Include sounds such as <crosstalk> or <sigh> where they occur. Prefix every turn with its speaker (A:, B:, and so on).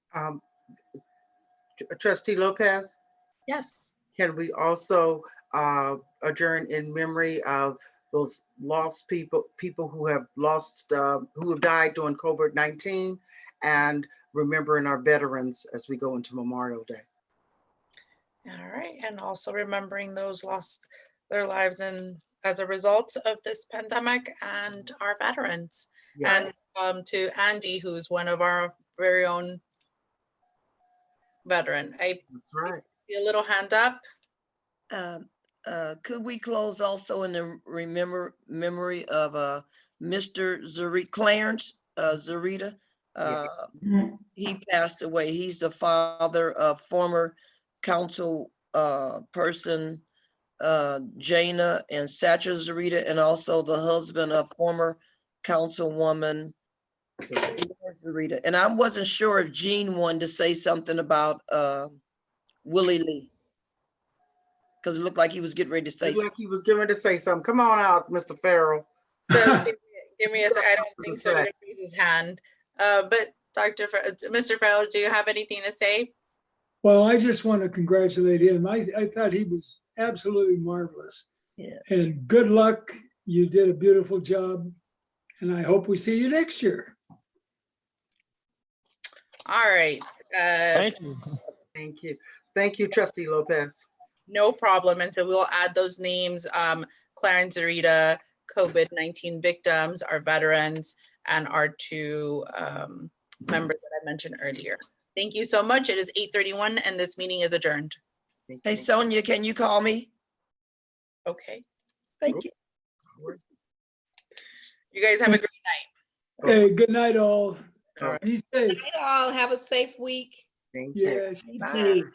A: um, uh, Trustee Lopez,
B: Yes.
A: can we also uh, adjourn in memory of those lost people, people who have lost, uh, who have died during COVID-19 and remembering our veterans as we go into Memorial Day?
B: All right. And also remembering those lost their lives and as a result of this pandemic and our veterans.
A: Yeah.
B: And um, to Andy, who's one of our very own veteran. I
A: That's right.
B: see a little
A: <laughs>
B: hand up.
C: Uh, uh, Could we close also in the remember, memory of uh, Mr. Zuri, Clarence uh, Zarita?
A: Yeah.
C: Uh, He passed away. He's the father of former council uh, person uh, Jana and Satcher Zarita, and also the husband of former councilwoman Laura Zarita. And I wasn't sure if Jean wanted to say something about uh, Willie Lee. Because it looked like he was getting ready to say,
A: Looked
C: something.
A: Like he was getting to say something. Come on out, Mr. Farrell.
B: So give me- give me a second. I don't
A: Give
B: think
A: us
B: so.
A: a
B: but it raises hand. Uh, But Dr. Fe- uh, Mr. Farrell, do you have anything to say?
D: Well, I just want to congratulate him. I, I thought he was absolutely marvelous.
C: Yeah.
D: And good luck. You did a beautiful job. And I hope we see you next year.
B: All right. uh,
E: Thank you.
A: Thank you. Thank you, Trustee Lopez.
B: No problem. And so we'll add those names, um, Clarence Zarita, COVID-19 victims, our veterans, and our two um, members that I mentioned earlier. Thank you so much. It is 8:31 and this meeting is adjourned.
A: Thank
C: hey
A: you.
C: Sonia, can you call me?
B: Okay.
C: Thank you.
B: You guys have a great
D: Hey, good night all.
A: All right.
D: Be safe.
F: Night all. Have a safe week.
A: Thank you.
D: Yes. you
C: Bye.
D: too.